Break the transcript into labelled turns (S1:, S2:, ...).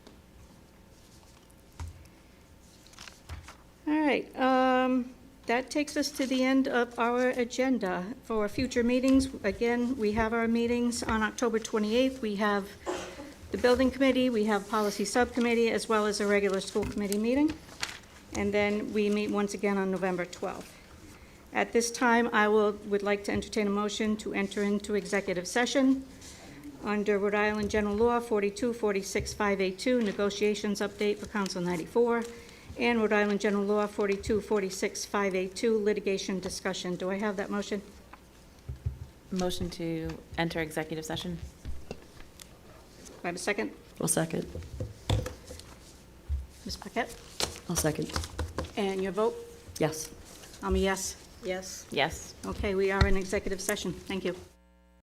S1: right, um, that takes us to the end of our agenda for future meetings. Again, we have our meetings on October 28th. We have the building committee, we have policy subcommittee, as well as a regular school committee meeting. And then we meet once again on November 12th. At this time, I will, would like to entertain a motion to enter into executive session under Rhode Island General Law 42, 46, 582, negotiations update for Council 94, and Rhode Island General Law 42, 46, 582, litigation discussion. Do I have that motion?
S2: Motion to enter executive session.
S1: Do I have a second?
S3: I'll second.
S1: Ms. Paquette?
S3: I'll second.
S1: And your vote?
S3: Yes.
S1: I'm a yes. Yes.
S2: Yes.
S1: Okay, we are in executive session. Thank you.